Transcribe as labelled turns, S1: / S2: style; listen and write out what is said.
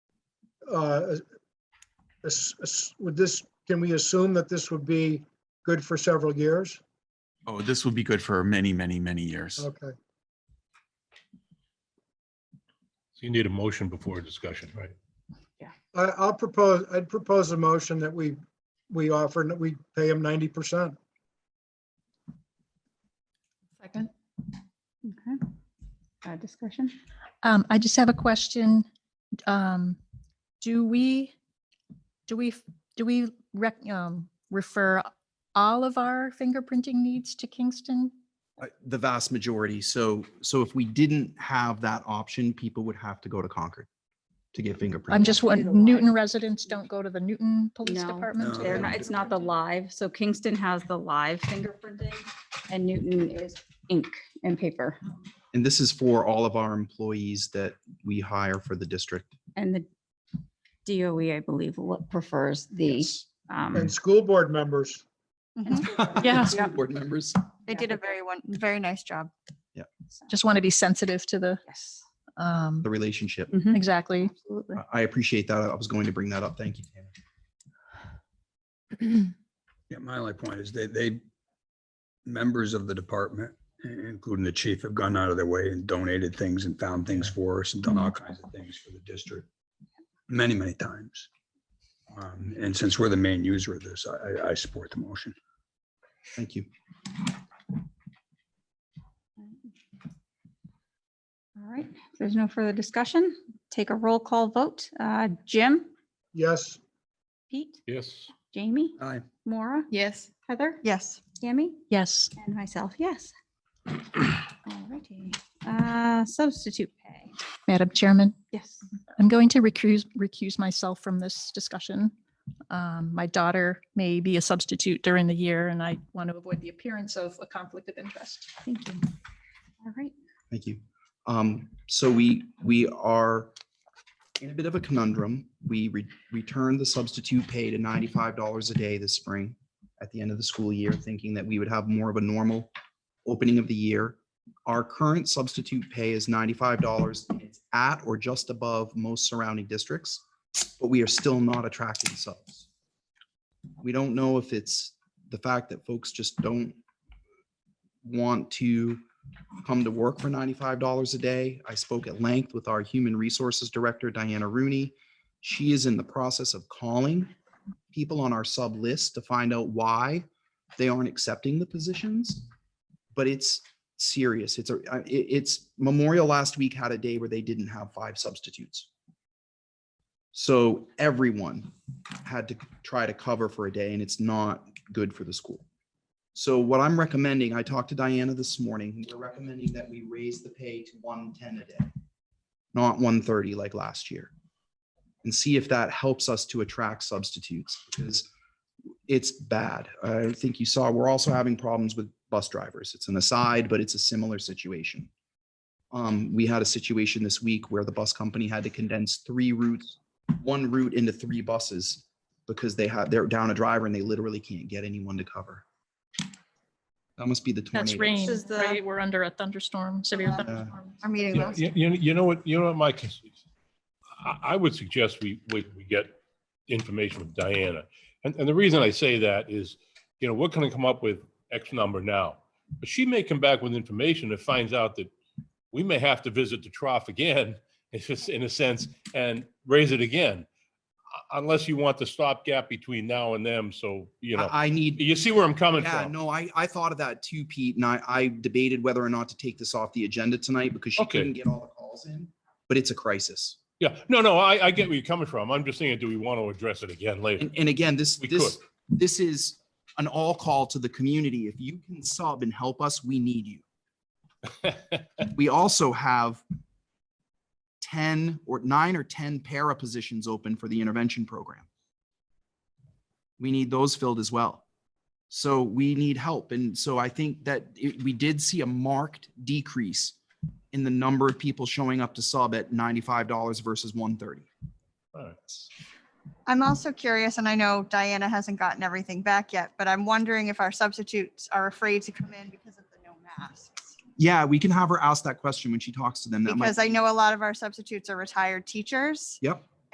S1: uh, as- as- would this, can we assume that this would be good for several years?
S2: Oh, this would be good for many, many, many years.
S1: Okay,
S3: So you need a motion before a discussion, right?
S1: I, I'll propose, I'd propose a motion that we, we offer, and that we pay him ninety percent.
S4: Second.
S5: Okay. Uh, Discussion?
S4: Um, I just have a question. Um, do we, do we, do we rec, um, refer all of our fingerprinting needs to Kingston?
S6: Uh, The vast majority. So, so if we didn't have that option, people would have to go to Concord to get fingerprinted.
S4: I'm just,
S5: do the
S4: wondering. Newton
S5: live.
S4: residents don't go to the Newton Police
S5: No,
S4: Department?
S6: No,
S4: to
S5: They're
S4: get
S5: not, it's not the live. So Kingston has the live fingerprinting and Newton is ink and paper.
S6: And this is for all of our employees that we hire for the district.
S5: And the DOE, I believe, lo- prefers the. um,
S1: And school board members,
S5: mhm.
S4: Yeah.
S6: School Board members.
S7: Mm-hmm. They
S5: Yeah.
S7: did a very one, very nice job.
S5: So,
S4: Just want to be sensitive to the,
S5: Yes.
S4: um,
S6: the relationship.
S5: Mhm.
S4: exactly.
S5: Absolutely.
S6: I- I appreciate that. I was going to bring that up. Thank you, Tanner.
S8: Yeah, my only point is they, they, members of the department, i- including the chief, have gone out of their way and donated things and found things for us and done all kinds of things for the district many, many times. Um, And since we're the main user of this, I, I- I support the motion.
S6: Thank you.
S5: All right. If there's no further discussion, take a roll call vote. Uh, Jim,
S1: yes,
S5: Pete,
S3: Yes.
S5: Jamie,
S8: Aye.
S5: Maura,
S7: Yes.
S5: Heather,
S7: Yes.
S5: Tammy?
S4: Yes.
S5: And myself, yes. Alrighty, uh, substitute pay,
S4: Madam Chairman,
S5: yes.
S4: I'm going to recuse, recuse myself from this discussion. Um, my daughter may be a substitute during the year and I want to avoid the appearance of a conflict of interest.
S5: Thank you. All right,
S6: Thank you. Um, so we, we are in a bit of a conundrum. We re- returned the substitute pay to ninety-five dollars a day this spring at the end of the school year, thinking that we would have more of a normal opening of the year. Our current substitute pay is ninety-five dollars. It's at or just above most surrounding districts, but we are still not attracting subs. We don't know if it's the fact that folks just don't want to come to work for $95 a day. I spoke at length with our Human Resources Director, Diana Rooney. She is in the process of calling people on our sub list to find out why they aren't accepting the positions. But it's serious. It's a, I- it- it's Memorial last week had a day where they didn't have five substitutes. So everyone had to try to cover for a day and it's not good for the school. So what I'm recommending, I talked to Diana this morning, we're recommending that we raise the pay to one ten a day, not one thirty like last year. And see if that helps us to attract substitutes because it's bad. I think you saw, we're also having problems with bus drivers. It's an aside, but it's a similar situation. Um, we had a situation this week where the bus company had to condense three routes, one route into three buses because they had, they're down a driver and they literally can't get anyone to cover. That must be the
S4: That's
S6: tornado.
S4: rain,
S7: is the- Uh,
S4: right? We're under a thunderstorm, severe
S7: Yeah.
S4: thunderstorm.
S7: Our meeting
S3: You,
S7: last.
S3: you, you know what, you know what, Mike? I, I would suggest we, we, we get information from Diana. And, and the reason I say that is, you know, we're gonna come up with X number now. But she may come back with information that finds out that we may have to visit the trough again, if it's in a sense, and raise it again. Uh, Unless you want the stopgap between now and them, so, you know,
S6: I I need
S3: you see where I'm coming
S6: Yeah,
S3: from.
S6: no, I, I thought of that too, Pete, and I, I debated whether or not to take this off the agenda tonight because she
S3: Okay.
S6: couldn't get all the calls in, but it's a crisis.
S3: Yeah, no, no, I, I get where you're coming from. I'm just saying, do we want to address it again later?
S6: And, and again, this,
S3: We
S6: this, this is an all call to the community. If you can sub and help us, we need you. We also have ten or nine or ten para positions open for the intervention program. We need those filled as well. So we need help. And so I think that it- we did see a marked decrease in the number of people showing up to sub at ninety-five dollars versus one thirty.
S3: All right.
S7: I'm also curious, and I know Diana hasn't gotten everything back yet, but I'm wondering if our substitutes are afraid to come in because of the no masks.
S6: Yeah, we can have her ask that question when she talks to them. That might
S7: Because I know a lot of our substitutes are retired teachers.
S6: Yep.